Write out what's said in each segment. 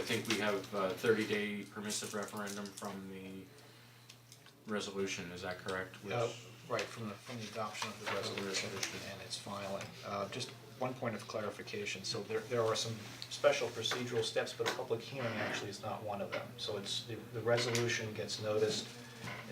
think we have a thirty day permissive referendum from the resolution, is that correct? Which- Uh, right, from the, from the adoption of the resolution and its filing. Uh, just one point of clarification, so there, there are some special procedural steps, but a public hearing actually is not one of them. So it's, the, the resolution gets noticed,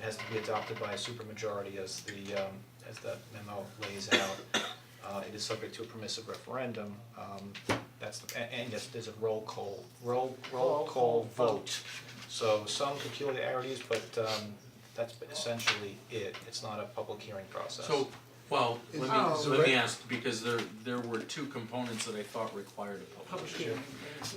it has to be adopted by a supermajority as the, um, as the memo lays out. Uh, it is subject to a permissive referendum, um, that's, the- and, and yes, there's a roll call, roll, roll call vote. So some peculiarities, but, um, that's essentially it, it's not a public hearing process. So, well, let Oh. me, let me ask, because there, there were two components that I thought required a public hearing.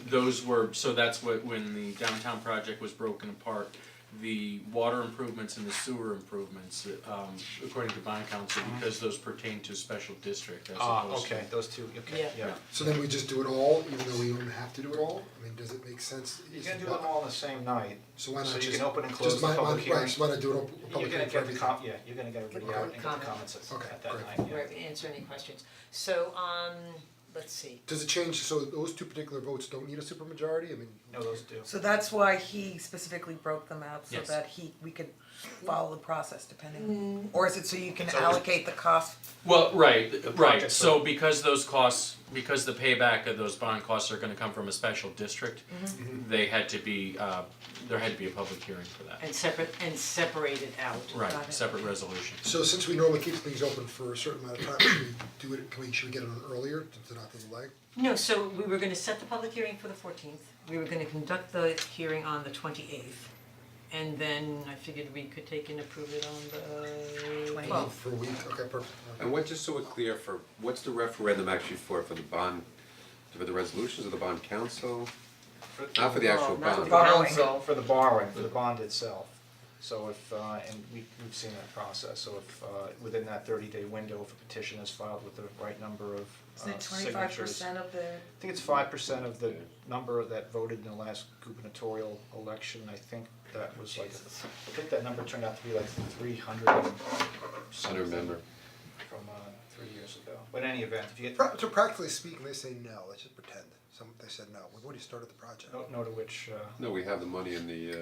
Those were, so that's what, when the downtown project was broken apart, the water improvements and the sewer improvements, um, according to bond council, because those pertain to special district as Uh-huh. Ah, opposed to. okay, those two, okay, Yeah. yeah. So then we just do it all, even though we don't have to do it all? I mean, does it make sense? You Is can it do them not- all on the same night, So why not so just? you can open and close just the my- my- public hearing. Right, so why not do it all, a public hearing for You're gonna get the everything? com, yeah, you're gonna get everybody out and get the Comment. comments at Okay, at that great. night, yeah. Where we answer any questions. So, um, let's see. Does it change, so those two particular votes don't need a supermajority? I mean. No, those do. So that's why he specifically broke them out so Yes. that he, we could follow the process Mm. depending. Or is it so you can So- allocate the cost? Well, right, right, projects so because those costs, because the payback of those bond costs are gonna come from a special district, they had to be, uh, there had to be a public hearing for that. And separate, and separate it out. Got Right, it. separate resolution. So since we normally keep things open for a certain amount of time, should we do it, can we, should we get it on earlier to to not delay? No, so we were gonna set the public hearing for the fourteenth, we were gonna conduct the hearing on the twenty-eighth. And then I figured we could take and approve it on the 28th. twelfth. For a week, okay, perfect. And what, just so we're clear, for, what's the referendum actually for, for the bond, for the resolutions of the bond council? Not for the actual not bond? the Borrowing. uh, So for the borrowing, for the bond itself, so if, uh, and we, we've seen that process, so if, uh, within that thirty day window, if a petition is filed with the right number of, uh, Isn't it signatures. twenty-five percent of the, I think it's five percent of the number that voted in the last gubernatorial election, I think that was like, I think that number turned out to be like three hundred and I something don't remember. from, uh, three years ago, but in any event, if you get, Pra- So practically speaking, they say no, let's just pretend, some, they said no, we've already started the project. don't know to which, uh, No, we have the money in the, uh,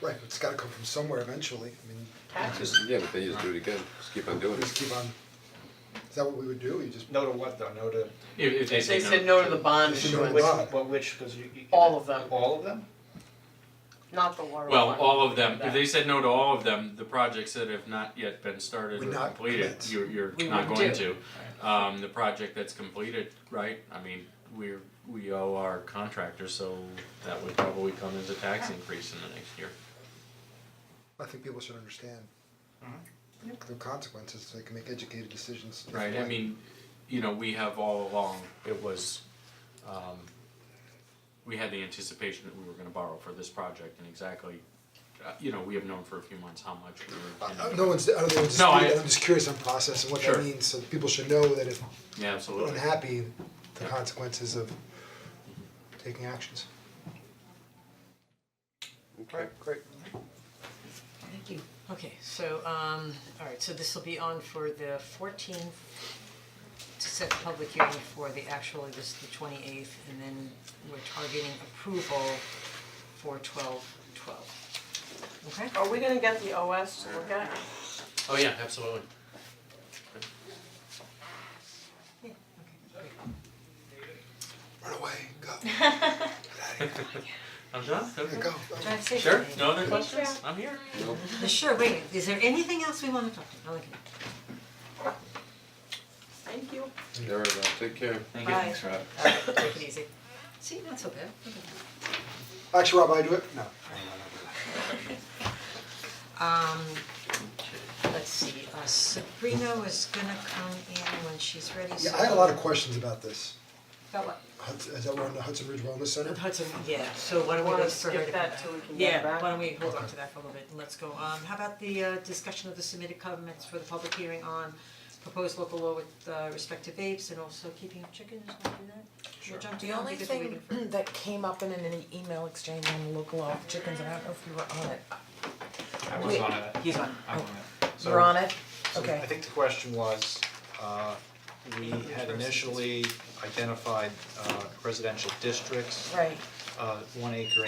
Right, but it's gotta come from somewhere eventually, I mean, taxes, yeah, but they just do it again, just keep on doing we just it. keep on, is that what we would do, you just? no to what though, no to If, if they say no. said no to the bond They said no to issuance, Which, Right. well, which, cause you, you. All of them. All of them? not the water one. Well, all of them, if That. they said no to all of them, the projects that have not yet been started Would or not completed, commence. you're, you're We not would going to. do. Um, the project that's completed, right, I mean, we're, we owe our contractor, so that would probably come as a tax increase in the next year. I think people should understand the consequences, so they can make educated decisions. if Right, they I want. mean, you know, we have all along, it was, um, we had the anticipation that we were gonna borrow for this project and exactly, uh, you know, we have known for a few months how much we were. Uh, No one's, I don't think it's No, I- disputed, I'm just curious on process and what Sure. that means, so people should know that if Yeah, we're absolutely. unhappy, the consequences of taking actions. Okay. great. Thank you. Okay, so, um, alright, so this will be on for the fourteenth, to set the public hearing for the, actually, this is the twenty-eighth, and then we're targeting approval for twelve, twelve. Okay? Are we gonna get the OS to look at? Oh, yeah, absolutely. Yeah, okay, great. Run away, go, I'm done, okay. go. Drive safely. Sure, no other questions? I'm here. Uh, Sure, wait, is there anything else we wanna talk about? Okay. Thank you. There we go, take care. Thank Bye. Thanks, Rob. Alright, take it easy. See, not so bad, okay. Actually, Rob, I do it? No. Um, let's see, uh, Sabrina was gonna come in when she's ready, so. Yeah, I had a lot of questions about this. Got what? Hudson, is that one the Hudson Ridge Wellness Center? Hudson, yeah, so why don't we Wanna wait for skip her to come that back? till we can get Yeah, back? why don't we hold on to that for a little bit and let's go, um, how about the uh discussion of the submitted comments for the public hearing on proposed local law with uh respect to vapes and also keeping of chickens, wanna do that? Sure. the only thing that came up in an email exchange on the local law of chickens, and I don't know if you were on it. I was Wait, on it, He's on, I'm on it. So- Oh, You're on it? So Okay. I think the question was, uh, we had initially identified uh, residential districts, Right. uh, one acre